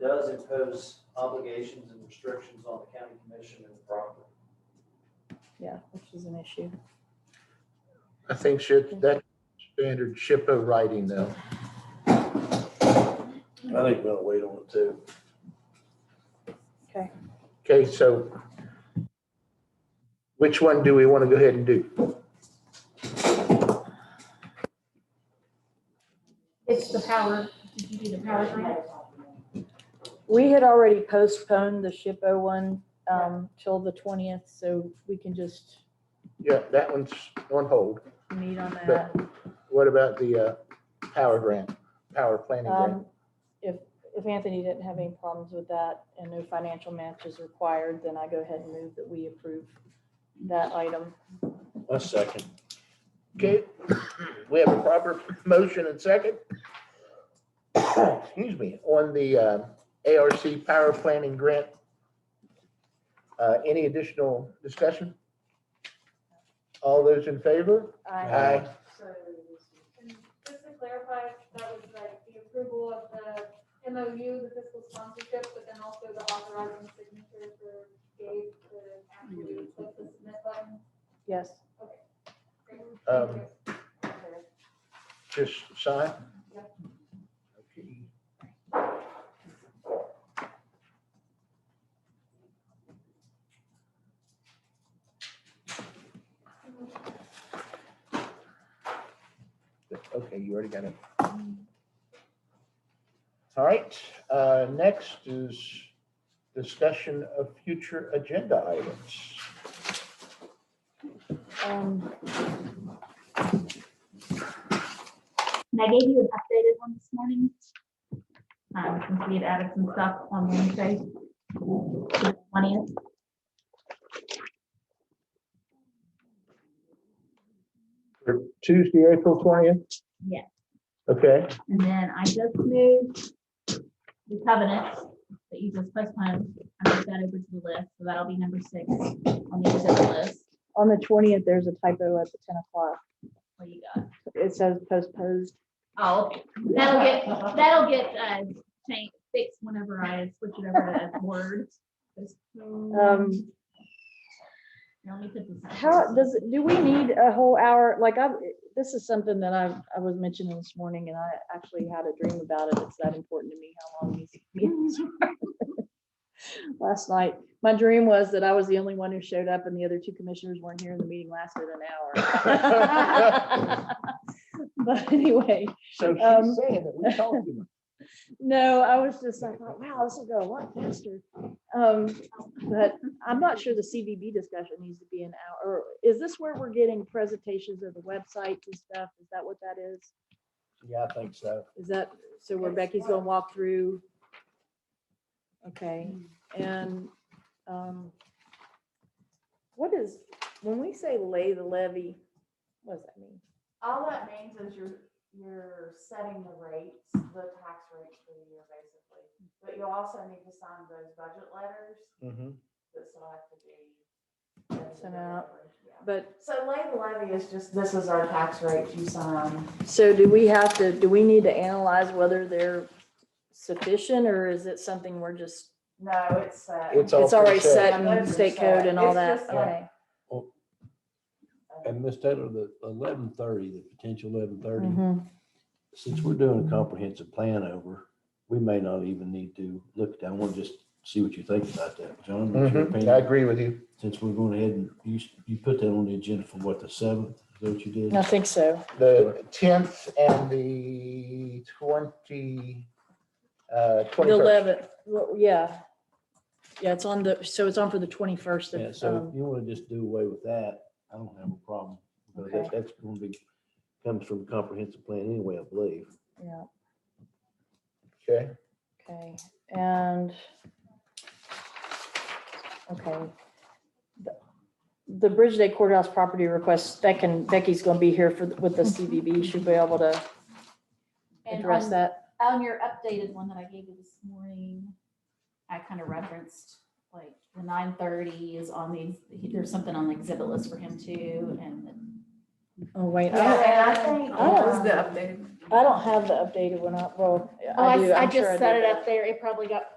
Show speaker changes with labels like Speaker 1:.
Speaker 1: does impose obligations and restrictions on the county commission and the property.
Speaker 2: yeah, which is an issue.
Speaker 3: I think should, that standard ship of writing though.
Speaker 4: I think we'll wait on it too.
Speaker 2: Okay,
Speaker 3: Okay, so which one do we want to go ahead and do?
Speaker 5: It's the power, did you do the power grant?
Speaker 2: we had already postponed the SHPO one um, till the 20th, so we can just
Speaker 3: Yeah, that one's on hold.
Speaker 2: meet on that.
Speaker 3: What about the uh, power grant, power planning grant?
Speaker 2: Um, If, if Anthony didn't have any problems with that and no financial match is required, then I go ahead and move that we approve that item.
Speaker 4: A second.
Speaker 3: Okay, we have a proper motion and second. Excuse me, on the uh, ARC power planning grant. Uh, Any additional discussion? All those in favor?
Speaker 2: I,
Speaker 3: Aye.
Speaker 6: So, and just to clarify, that was like the approval of the MOU, the fiscal sponsorship, but then also the authorizing signature for Dave to actually click the submit button.
Speaker 2: yes,
Speaker 6: Great.
Speaker 3: Um, Just sign?
Speaker 6: Yep.
Speaker 3: Okay. Okay, you already got it. All right, uh, next is discussion of future agenda items.
Speaker 2: um,
Speaker 5: And I gave you an updated one this morning. Um, since we had added some stuff on Wednesday. the 20th.
Speaker 3: For Tuesday, April twentieth?
Speaker 5: Yeah.
Speaker 3: Okay.
Speaker 5: And then I just moved the covenant that you just postponed. I moved that over to the list, so that'll be number six on the agenda list.
Speaker 2: on the 20th, there's a typo at the 10 o'clock.
Speaker 5: What do you got?
Speaker 2: It says postposed.
Speaker 5: Oh, that'll get, that'll get, uh, changed, fixed whenever I switch it over to Word.
Speaker 2: Um,
Speaker 5: Let me put this. up.
Speaker 2: How, does, it? do we need a whole hour? Like, I, this is something that I, I was mentioning this morning and I actually had a dream about it. It's that important to me how long these meetings are. Last night, my dream was that I was the only one who showed up and the other two commissioners weren't here and the meeting lasted an hour. But anyway,
Speaker 3: So
Speaker 2: Um,
Speaker 3: she's saying that we talked to them.
Speaker 2: no, I was just like, "Oh, wow, this will go a lot faster. Um, but I'm not sure the CBB discussion needs to be an hour. Or Is this where we're getting presentations of the websites and stuff? Is that what that is?
Speaker 4: Yeah, I think so.
Speaker 2: Is that, so where Becky's gonna walk through? Okay, and, um, what is, when we say lay the levy, what does that mean?
Speaker 7: All that means is you're, you're setting the rates, the tax rates for the year basically. But you also need to sign those budget letters
Speaker 4: Mhm.
Speaker 7: that still have to be.
Speaker 2: Sent out.
Speaker 7: Yeah.
Speaker 2: But,
Speaker 7: So lay the levy is just, this is our tax rate you sign.
Speaker 2: so do we have to, do we need to analyze whether they're sufficient or is it something we're just
Speaker 7: No, it's, uh.
Speaker 3: It's all
Speaker 2: It's already
Speaker 3: preset.
Speaker 2: set
Speaker 7: Yeah,
Speaker 2: in
Speaker 7: those are
Speaker 2: state code
Speaker 7: set.
Speaker 2: and all
Speaker 7: It's
Speaker 2: that,
Speaker 7: just like-
Speaker 2: okay.
Speaker 4: And Miss Taylor, the eleven thirty, the potential eleven thirty,
Speaker 2: Mm-hmm.
Speaker 4: since we're doing a comprehensive plan over, we may not even need to look, at that. I want to just see what you think about that, John. what's your
Speaker 3: Mhm, I
Speaker 4: opinion?
Speaker 3: agree with you.
Speaker 4: Since we're going ahead and you, you put that on the agenda for what, the seventh, is that what you did?
Speaker 2: I think so.
Speaker 3: The tenth and the twenty, uh,
Speaker 2: The
Speaker 3: twenty-first.
Speaker 2: eleventh, well, yeah. Yeah, it's on the, so it's on for the twenty-first
Speaker 4: Yeah,
Speaker 2: of,
Speaker 4: so if
Speaker 2: um,
Speaker 4: you want to just do away with that, I don't have a problem. But that,
Speaker 2: Okay.
Speaker 4: that's going to be, comes from comprehensive plan anyway, I believe.
Speaker 2: yeah,
Speaker 3: Okay,
Speaker 2: okay, and. Okay. The- The Bridge Day Courthouse property request, that can, Becky's gonna be here for, with the CBB, she'll be able to
Speaker 5: And
Speaker 2: address
Speaker 5: on-
Speaker 2: that.
Speaker 5: On your updated one that I gave you this morning, I kind of referenced like the nine thirty is on the, there's something on the exhibit list for him too and.
Speaker 2: Oh, wait, I
Speaker 7: Yeah,
Speaker 2: don't,
Speaker 7: and I think.
Speaker 2: I don't-
Speaker 7: um,
Speaker 6: updated?
Speaker 2: Oh, I don't have the updated one up, well, I do, I'm sure I did that.
Speaker 5: there. It probably got